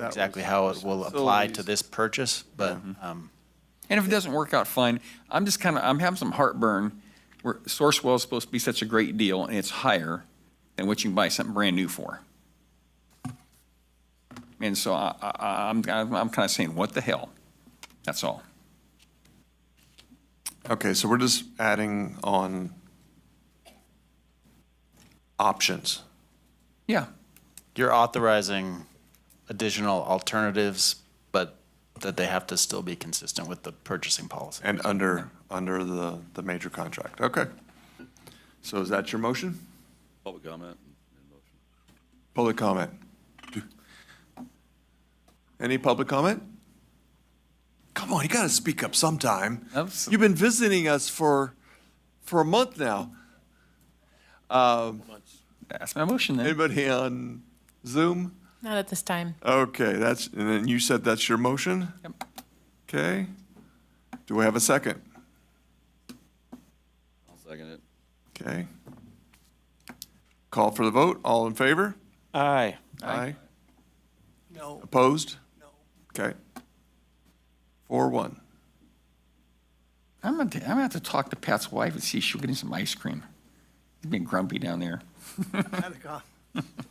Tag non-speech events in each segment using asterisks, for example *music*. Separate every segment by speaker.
Speaker 1: That was-
Speaker 2: exactly how it will apply to
Speaker 1: facilities.
Speaker 2: this purchase, but, um,
Speaker 3: And if it doesn't work out, fine. I'm just kind of, I'm having some heartburn where Sourcewell is supposed to be such a great deal and it's higher than what you can buy something brand new for. And so I, I, I'm, I'm kind of saying, what the hell? That's all.
Speaker 1: Okay, so we're just adding on options.
Speaker 3: Yeah.
Speaker 2: you're authorizing additional alternatives, but that they have to still be consistent with the purchasing policy.
Speaker 1: And under, under the, the major contract, okay. So is that your motion?
Speaker 4: Public comment.
Speaker 1: Public comment? Any public comment? Come on, you gotta speak up sometime.
Speaker 3: Abs-
Speaker 1: You've been visiting us for, for a month now.
Speaker 3: That's my motion then.
Speaker 1: Anybody on Zoom?
Speaker 5: Not at this time.
Speaker 1: Okay, that's, and then you said that's your motion?
Speaker 3: Yep.
Speaker 1: Okay. Do we have a second?
Speaker 4: I'll second it.
Speaker 1: Okay. Call for the vote. All in favor?
Speaker 2: Aye.
Speaker 1: Aye. No. Opposed? No. Okay. Four, one.
Speaker 3: I'm gonna, I'm gonna have to talk to Pat's wife and see if she'll get him some ice cream. He's been grumpy down there.
Speaker 6: Not a con,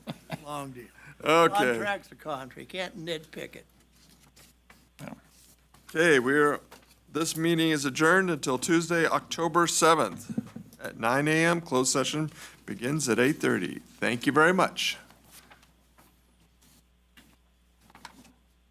Speaker 6: *laughs* long deal.
Speaker 1: Okay.
Speaker 6: Contract's a contract, you can't nitpick it.
Speaker 1: Okay, we're, this meeting is adjourned until Tuesday, October 7th at 9 a.m. Closed session begins at 8:30. Thank you very much.